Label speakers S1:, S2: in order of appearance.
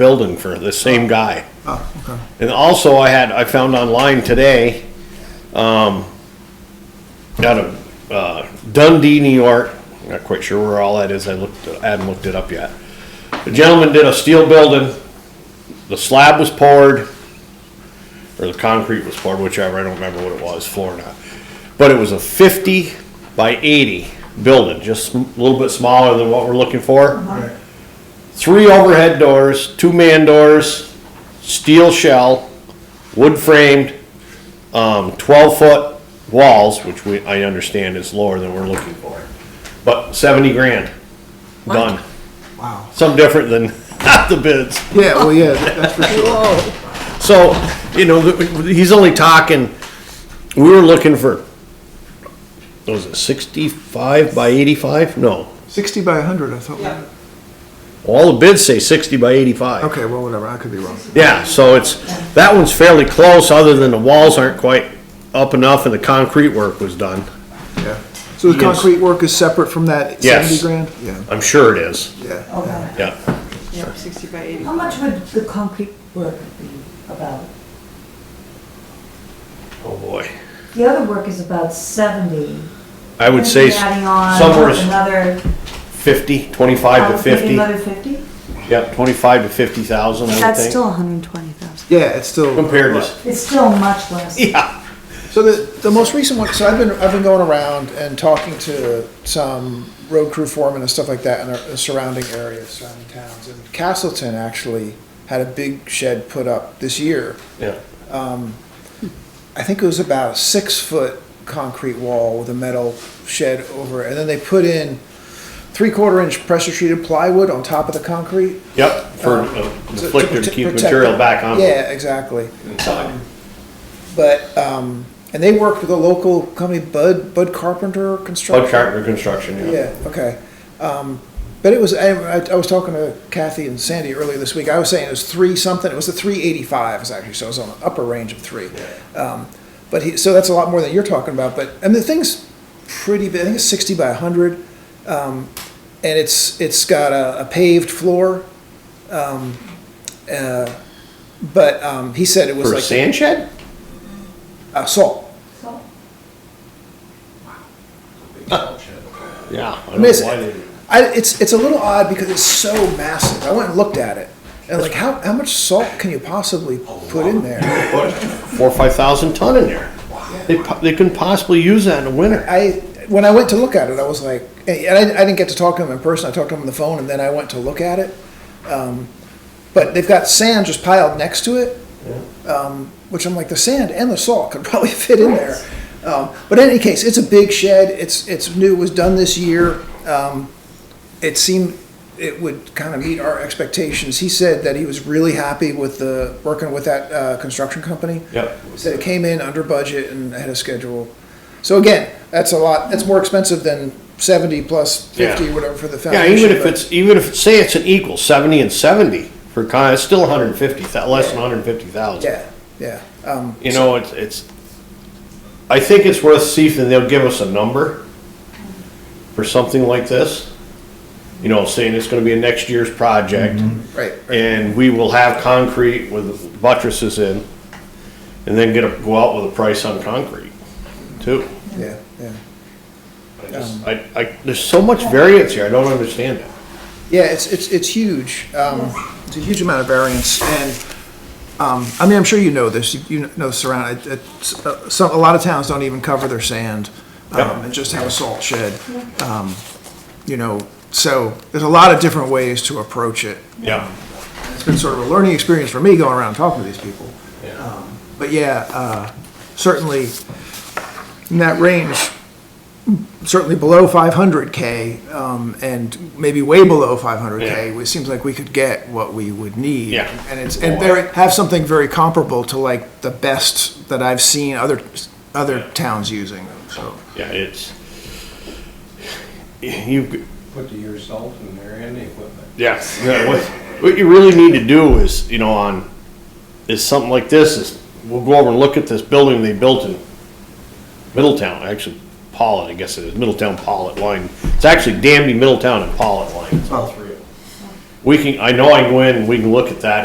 S1: building for the same guy.
S2: Oh, okay.
S1: And also, I had, I found online today, um, out of uh, Dundee, New York, not quite sure where all that is, I looked, I haven't looked it up yet. The gentleman did a steel building, the slab was poured, or the concrete was poured, whichever, I don't remember what it was, floor or not. But it was a fifty by eighty building, just a little bit smaller than what we're looking for
S2: Right.
S1: three overhead doors, two man doors, steel shell, wood framed, um, twelve foot walls, which we, I understand is lower than we're looking for. But seventy grand, done.
S2: Wow.
S1: Some different than the bids.
S2: Yeah, well, yeah, that's for sure.
S1: So, you know, th- he's only talking, we were looking for, what was it sixty-five by eighty-five? No,
S2: Sixty by hundred, I thought. we-
S1: all the bids say sixty by eighty-five.
S2: Okay, well, whatever, I could be wrong.
S1: Yeah, so it's, that one's fairly close, other than the walls aren't quite up enough and the concrete work was done.
S2: Yeah. So the
S1: Yes.
S2: concrete work is separate from that
S1: Yes.
S2: seventy grand? Yeah,
S1: I'm sure it is,
S2: yeah.
S3: Okay.
S1: yeah.
S4: Yeah, sixty by eighty.
S3: How much would the concrete work be about?
S1: Oh, boy.
S3: The other work is about seventy.
S1: I would say s-
S3: Adding on
S1: somewhere is
S3: another.
S1: fifty, twenty-five
S3: I
S1: to
S3: was thinking
S1: fifty.
S3: Another fifty?
S1: Yep, twenty-five to fifty thousand, I would
S4: That's
S1: think.
S4: still hundred and twenty thousand.
S2: Yeah, it's still.
S1: Compared to,
S3: It's still much less.
S1: yeah,
S2: So the, the most recent one, so I've been, I've been going around and talking to some road crew foremen and stuff like that in the surrounding areas, surrounding towns. And Castleton actually had a big shed put up this year.
S1: yeah,
S2: I think it was about a six foot concrete wall with a metal shed over it. And then they put in three quarter inch pressure treated plywood on top of the concrete.
S1: yep, for
S2: Um,
S1: uh,
S2: to- to
S1: deflector to
S2: prote-
S1: keep
S2: protect
S1: material
S2: it.
S1: back on.
S2: Yeah, exactly.
S1: inside.
S2: But, um, and they worked with a local company, Bud, Bud Carpenter Construction.
S1: Plug carpenter construction, yeah.
S2: Yeah, okay. Um, but it was, I, I- I was talking to Kathy and Sandy earlier this week. I was saying it was three something. It was the three eighty-five is actually, so it was on the upper range of three. Um, but he, so that's a lot more than you're talking about, but, and the thing's pretty big. I think it's sixty by hundred. Um, and it's, it's got a, a paved floor. Um, uh, but, um, he said it was
S1: For a
S2: like,
S1: sand shed?
S2: uh, salt.
S3: So,
S1: Yeah. I
S2: I
S1: don't
S2: mean, it's,
S1: know why they-
S2: I, it's, it's a little odd because it's so massive. I went and looked at it. And like, how, how much salt can you possibly put in there?
S1: Four, or five thousand ton in there. They, po- they couldn't possibly use that in the winter.
S2: I, when I went to look at it, I was like, and I, I didn't get to talk to him in person. I talked to him on the phone and then I went to look at it. Um, but they've got sand just piled next to it, um, which I'm like, the sand and the salt could probably fit in there. Um, but in any case, it's a big shed. It's, it's new, it was done this year. Um, it seemed it would kind of meet our expectations. He said that he was really happy with the, working with that uh, construction company.
S1: Yep.
S2: Said it came in under budget and ahead of schedule. So again, that's a lot, that's more expensive than 70 plus 50,
S1: Yeah.
S2: whatever for the
S1: Yeah,
S2: foundation.
S1: even if
S2: but-
S1: it's, even if, say it's an equal, seventy and seventy for con, it's still a hundred and fifty thou, less than hundred and fifty thousand.
S2: Yeah, yeah. Um,
S1: You know, it's, it's, I think it's worth seeing, if they'll give us a number for something like this. You know, saying it's gonna be a next year's project,
S2: Right, right.
S1: and we will have concrete with buttresses in, and then get a, go out with a price on concrete, too.
S2: yeah, yeah.
S1: I just, I, I, there's so much variance here, I don't understand it.
S2: Yeah, it's, it's, it's huge. Um, it's a huge amount of variance and, um, I mean, I'm sure you know this, you- you know surround, it- it's, uh, some, a lot of towns don't even cover their sand. Um,
S1: Yep.
S2: and just have a salt shed. Um, you know, so there's a lot of different ways to approach it.
S1: Yeah.
S2: It's been sort of a learning experience for me going around talking to these people. Um, But yeah, uh, certainly in that range, certainly below 500K um, and maybe way below 500K,
S1: Yeah.
S2: it seems like we could get what we would need.
S1: Yeah.
S2: And it's, and very, have something very comparable to like the best that I've seen other, other towns using, so.
S1: Yeah, it's, you,
S5: put the year's salt in there and the equipment.
S1: yes, what, what you really need to do is, you know, on, is something like this, is we'll go over and look at this building they built in Middletown, actually, Pollitt, I guess it is, Middletown Pollitt line. It's actually Danby, Middletown, and Pollitt line.
S5: All three of them.
S1: we can, I know I can go in, and we can look at that